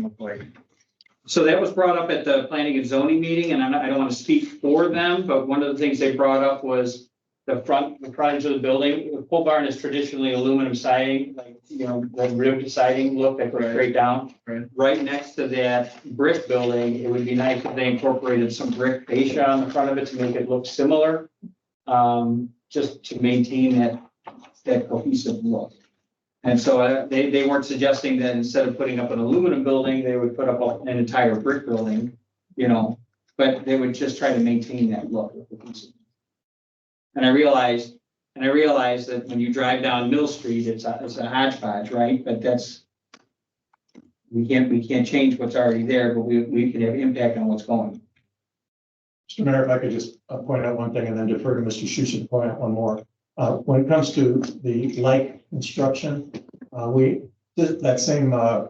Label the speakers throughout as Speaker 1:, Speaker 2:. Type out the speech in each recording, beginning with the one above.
Speaker 1: look like.
Speaker 2: So that was brought up at the planning and zoning meeting, and I'm not- I don't want to speak for them, but one of the things they brought up was the front, the frontage of the building, the pole barn is traditionally aluminum siding, like, you know, the ribbed siding look that goes straight down.
Speaker 1: Right.
Speaker 2: Right next to that brick building, it would be nice if they incorporated some brick fascia on the front of it to make it look similar. Um, just to maintain that, that cohesive look. And so uh, they, they weren't suggesting that instead of putting up an aluminum building, they would put up a- an entire brick building, you know, but they would just try to maintain that look. of the piece. And I realized, and I realized that when you drive down Mill Street, it's a, it's a hodgepodge, right? But that's, we can't, we can't change what's already there, but we, we can have impact on what's going.
Speaker 3: Mr. Mayor, if I could just uh, point out one thing and then defer to Mr. Schuster to point out one more. Uh, When it comes to the like construction, uh, we, th- that same uh,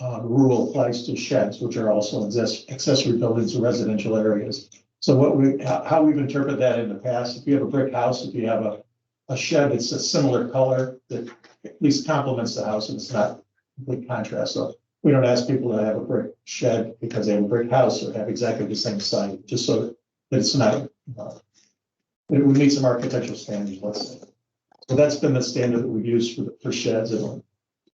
Speaker 3: uh, rule applies to sheds, which are also access- accessory buildings in residential areas. So what we, how how we've interpreted that in the past, if you have a brick house, if you have a, a shed, it's a similar color that at least complements the house and it's not complete contrast. So we don't ask people to have a brick shed because they have a brick house or have exactly the same sign, just so that it's not. uh, It would meet some architectural standards, let's say. So that's been the standard that we've used for, for sheds and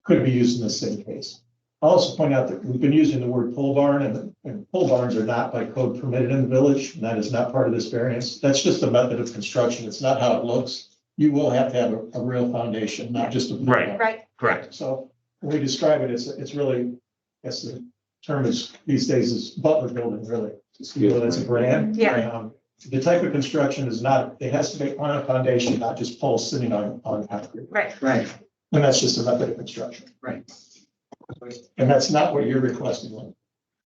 Speaker 3: could be used in the same case. I'll also point out that we've been using the word pole barn and, and pole barns are not by code permitted in the village. and That is not part of this variance. That's just a method of construction. It's not how it looks. You will have to have a, a real foundation, not just a. pole
Speaker 4: Right.
Speaker 3: barn.
Speaker 5: Right,
Speaker 4: Correct.
Speaker 3: So when we describe it, it's, it's really, I guess the term is, these days is butler building, really. You know, that's a brand.
Speaker 5: Yeah.
Speaker 3: Um, The type of construction is not, it has to be on a foundation, not just poles sitting on, on concrete.
Speaker 5: right.
Speaker 2: Right.
Speaker 3: And that's just a method of construction.
Speaker 2: Right.
Speaker 3: And that's not what you're requesting. Lynn.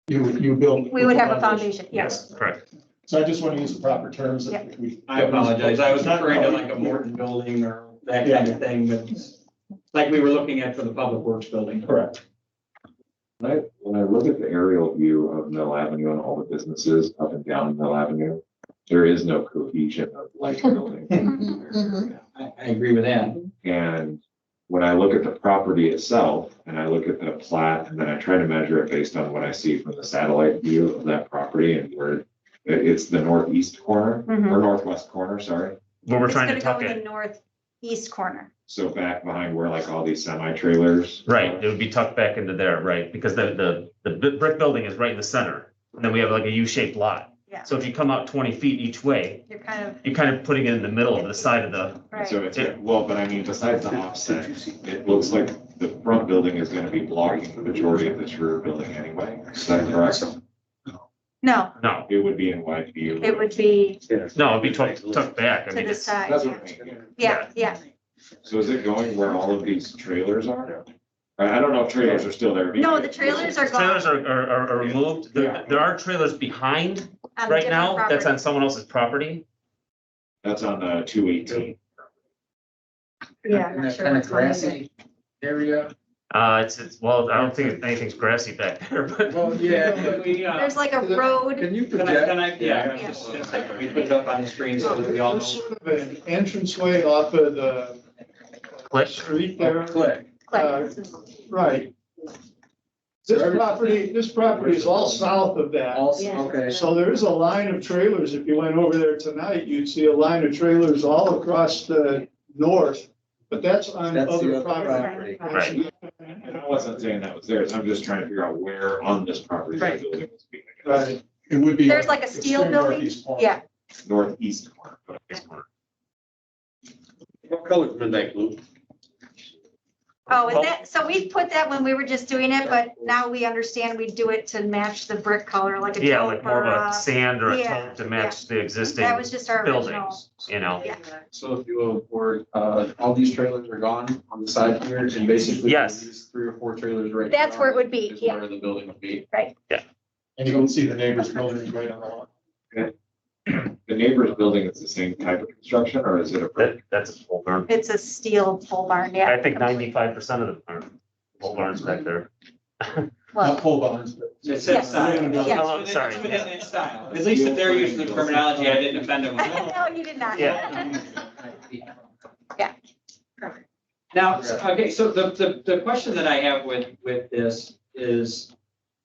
Speaker 3: You, you build.
Speaker 5: We would have a foundation, yes.
Speaker 3: Yes.
Speaker 4: Correct.
Speaker 3: So I just want to use the proper terms that we.
Speaker 2: I apologize. I was referring to like a Morton building or that kind of thing, but like we were looking at for the Public Works building.
Speaker 3: Correct.
Speaker 6: When I, when I look at the aerial view of Mill Avenue and all the businesses up and down Mill Avenue, there is no cohesion of like building.
Speaker 2: I, I agree with that.
Speaker 6: And when I look at the property itself and I look at the plat and then I try to measure it based on what I see from the satellite view of that property and where it- it's the northeast corner
Speaker 5: Mhm.
Speaker 6: or northwest corner, sorry.
Speaker 4: Well, we're
Speaker 5: It's
Speaker 4: trying to
Speaker 5: gonna go
Speaker 4: tuck
Speaker 5: in
Speaker 4: it,
Speaker 5: the Northeast corner.
Speaker 6: So back behind where like all these semi trailers.
Speaker 4: right, it would be tucked back into there, right, because the, the, the bi- brick building is right in the center. And then we have like a U-shaped lot.
Speaker 5: Yeah.
Speaker 4: So if you come out twenty feet each way,
Speaker 5: You're kind of,
Speaker 4: you're kind of putting it in the middle of the side of the,
Speaker 6: So
Speaker 5: right.
Speaker 6: it's, well, but I mean, besides the offset, it looks like the front building is gonna be blocking the majority of this rear building anyway. Is that correct?
Speaker 5: No,
Speaker 4: no,
Speaker 6: It would be in wide view.
Speaker 5: it would be
Speaker 4: no, it'd be tucked, tucked back. I
Speaker 5: to
Speaker 4: mean,
Speaker 5: the
Speaker 4: it's-
Speaker 5: side.
Speaker 6: That's what I mean.
Speaker 5: Yeah, yeah.
Speaker 6: So is it going where all of these trailers are? I, I don't know if trailers are still there.
Speaker 5: No, the trailers are gone
Speaker 4: Trailers are, are, are- are removed. There,
Speaker 6: Yeah.
Speaker 4: there are trailers behind
Speaker 5: on
Speaker 4: right
Speaker 5: a Um, different
Speaker 4: now, that's on
Speaker 5: property.
Speaker 4: someone else's property.
Speaker 6: That's on the two eighteen.
Speaker 5: Yeah, I'm
Speaker 1: And
Speaker 5: not
Speaker 1: that
Speaker 5: sure
Speaker 1: kind of
Speaker 5: what's going on.
Speaker 1: grassy area.
Speaker 4: Uh, it's, it's, well, I don't think anything's grassy back there, but.
Speaker 1: Well, yeah.
Speaker 2: Can we, uh,
Speaker 5: There's like a
Speaker 1: Is it-
Speaker 5: road,
Speaker 1: Can you
Speaker 2: Can I,
Speaker 1: project?
Speaker 2: can I, yeah, I was
Speaker 5: Yeah.
Speaker 2: just gonna say, can we put it up on the screen so that we all
Speaker 7: There's
Speaker 2: know?
Speaker 7: sort of an entranceway off of the
Speaker 4: Click.
Speaker 7: street there,
Speaker 1: Click.
Speaker 7: uh,
Speaker 5: click.
Speaker 7: right? This property, this property is all south of that,
Speaker 1: Also, okay.
Speaker 7: so there is a line of trailers, if you went over there tonight, you'd see a line of trailers all across the north, but that's on
Speaker 1: That's the
Speaker 7: other
Speaker 1: other
Speaker 7: property.
Speaker 1: property.
Speaker 4: Right.
Speaker 6: And I wasn't saying that was theirs. I'm just trying to figure out where on this property. the building was being, I guess.
Speaker 7: Right.
Speaker 3: It would be.
Speaker 5: There's like a steel
Speaker 3: extreme
Speaker 5: building?
Speaker 3: northeast corner.
Speaker 5: Yeah,
Speaker 6: Northeast corner, but I guess corner.
Speaker 8: What color's midnight blue?
Speaker 5: oh,
Speaker 4: Well-
Speaker 5: and that, so we put that when we were just doing it, but now we understand we do it to match the brick color, like a
Speaker 4: Yeah,
Speaker 5: taupe
Speaker 4: like more
Speaker 5: or
Speaker 4: of a
Speaker 5: a.
Speaker 4: sand or a
Speaker 5: yeah,
Speaker 4: taupe to match the existing
Speaker 5: That was just our original.
Speaker 4: buildings, you know?
Speaker 5: Yeah.
Speaker 8: So if you will, where, uh, all these trailers are gone on the side here and basically.
Speaker 4: Yes.
Speaker 8: these Three or four trailers right.
Speaker 5: That's where it
Speaker 8: now
Speaker 5: would be,
Speaker 8: is
Speaker 5: yeah.
Speaker 8: Where the building would be.
Speaker 3: And you can see the neighbors building right on the lawn.
Speaker 6: The neighbor's building is the same type of construction or is it a? brick?
Speaker 4: That, that's a pole barn.
Speaker 5: It's a steel pole barn, yeah.
Speaker 4: I think ninety-five percent of them are pole barns back there.
Speaker 3: Not
Speaker 5: Well,
Speaker 3: pole barns, but.
Speaker 2: It's
Speaker 5: Yeah.
Speaker 2: that style.
Speaker 5: Yeah.
Speaker 4: Oh, sorry.
Speaker 2: It's that style. At least if they're using the terminology, I didn't offend them.
Speaker 5: no, you did not.
Speaker 4: Yeah.
Speaker 2: Now, so- okay, so the, the, the question that I have with, with this is,